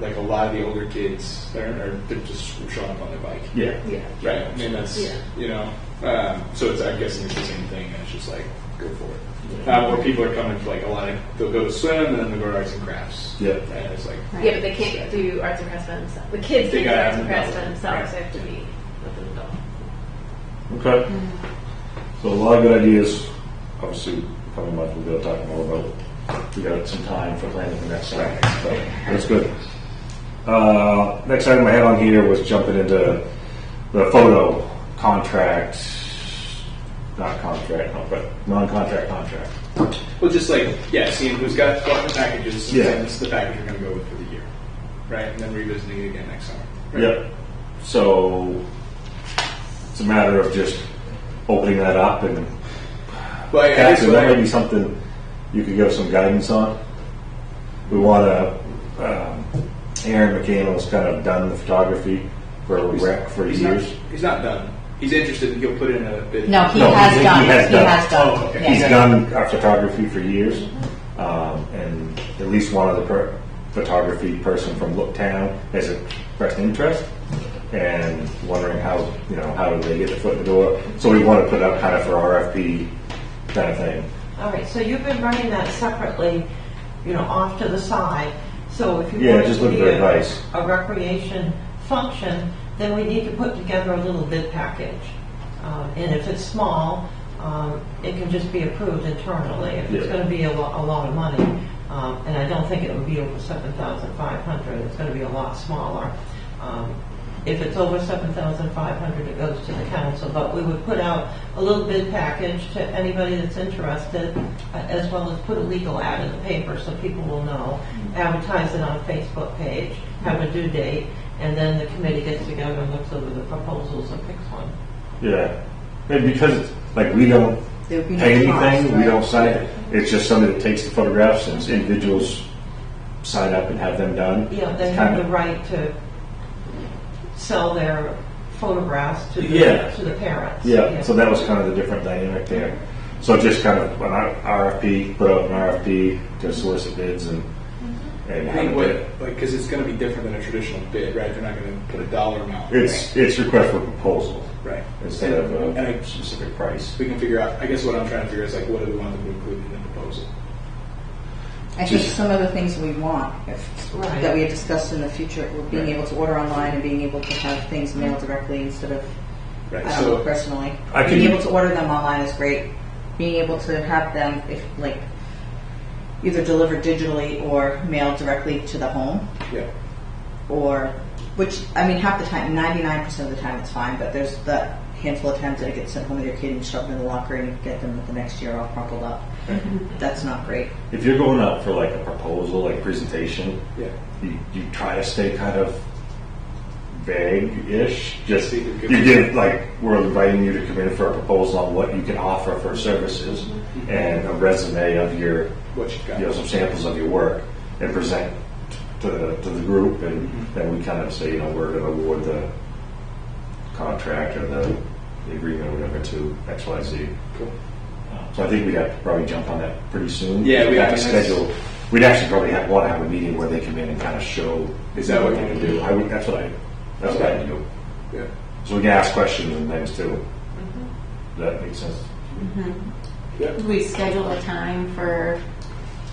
like a lot of the older kids, they're, are- they're just showing up on their bike. Yeah. Yeah. Right. I mean, that's, Yeah. you know, um, so it's, I'm guessing it's the same thing, and it's just like, go for it. Uh, where people are coming for like a lot of, they'll go to swim, and then they'll go to arts and crafts. Yeah. And it's like, Yeah, but they can't do arts and crafts by themselves. The kids They can't do gotta arts have and an crafts by adult. themselves. Right. They have to be with an adult. Okay. So a lot of good ideas. Obviously, coming month we'll be able to talk more about. We got some time for planning the next time. So that's good. Uh, next item I had on here was jumping into the photo contract, not contract, no, but non-contract contract. well, just like, yeah, seeing who's got what the packages, and Yeah. then it's the package you're going to go with for the year. Right. And then revisiting it again next summer. Right? Yep. So it's a matter of just opening that up and Well, yeah, Yeah, that's so what that may I, be something you could give some guidance on. We want to, um, Aaron McCandless kind of done the photography for He's- rec for he's years. Not, he's not done. He's interested. He'll put in a bid. No, he No, has he- done. he has done. Oh, okay. yeah. He's done our photography for years, um, and at least one other per- photography person from Looktown has expressed interest and wondering how, you know, how do they get their foot in the door? So we want to put up kind of for RFP kind of thing. All right, so you've been running that separately, you know, off to the side. So if you Yeah, want just to looking be for a- advice. a recreation function, then we need to put together a little bid package. Um, And if it's small, um, it can just be approved internally. If it's Yeah. going to be a lot, a lot of money, um, and I don't think it would be over seven thousand five hundred, it's going to be a lot smaller. Um, If it's over seven thousand five hundred, it goes to the council, but we would put out a little bid package to anybody that's interested, uh, as well as put a legal ad in the paper so people will know, advertise it on a Facebook page, have a due date, and then the committee gets together and looks over the proposals and picks one. Yeah, and because like we don't There would be no pay cost, anything, we right? don't sign it. It's just somebody that takes the photographs and individuals sign up and have them done. you know, they It's have kinda- the right to sell their photographs to the, Yeah. to the parents. Yeah, so that was kind of the different dynamic there. So just kind of an RFP, put out an RFP to solicit bids and Mm-hmm. and I have think it what, bid. like, because it's going to be different than a traditional bid, right? They're not going to put a dollar amount. It's it's request for proposal right. instead of And a I- specific price. We can figure out. I guess what I'm trying to figure is like, what do we want them to include in the proposal? I think Just- some of the things we want, if, Right. that we had discussed in the future, were being Right. able to order online and being able to have things mailed directly instead of, Right. I don't so know, personally. I Being can- able to order them online is great. Being able to have them, if, like, either delivered digitally or mailed directly to the home, yeah, or, which, I mean, half the time, ninety-nine percent of the time it's fine, but there's that handful of times that it gets sent home with your kid and shoved in the locker and you get them the next year all crumpled up. Mm-hmm. That's not great. If you're going out for like a proposal, like presentation, yeah. you, you try to stay kind of vague-ish. Just So you you can give- give like we're inviting you to come in for a proposal on what you can offer for services and a resume of your What you got? you know some samples of your work and present to the, to the group and then we kind of say you know we're going to award the contract or the, the agreement or whatever to X Y Z. Cool. So I think we have to probably jump on that pretty soon. Yeah, we- have I to mean, that's- schedule. We'd actually probably have, want to have a meeting where they come in and kind of show. Is that what- they can do? I would. That's what I. That's what I do. Yeah. So we can ask questions and things too. Does that make sense? Yeah. Would we schedule a time for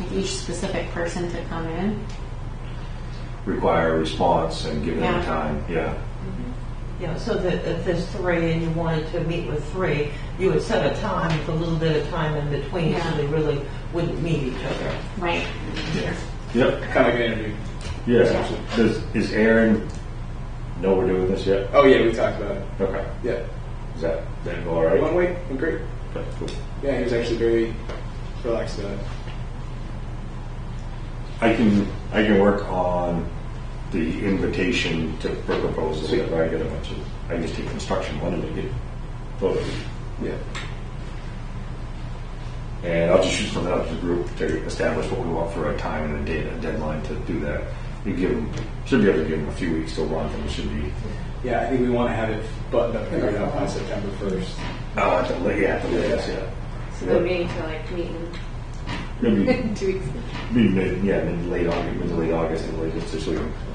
like, each specific person to come in? Require a response and give them Yeah. time. Yeah. Yeah, so that if there's three and you wanted to meet with three, you would set a time with a little bit of time in between so Yeah. they really wouldn't meet each other. Right. Yeah. Yep. Kind of like an interview. Yeah. Does is Aaron know we're doing this yet? Oh yeah, we talked about it. Okay. Yeah. Is that that go all right? One way. I'm great. Okay, cool. Yeah, he was actually very relaxed about it. I can I can work on the invitation to for proposals Sweet. that I get a bunch of. I just take construction one and make it photos, Yeah. and I'll just shoot something out to the group to establish what we want for a time and a date, and a deadline to do that. You give them should be able to give them a few weeks to run, and it should be Yeah, I think we want to have it buttoned up figured out by September first. oh at the la- yeah at the latest yeah. So we're meeting to like meet in Maybe two weeks. be mid yeah mid late August mid to late August and latest just so we can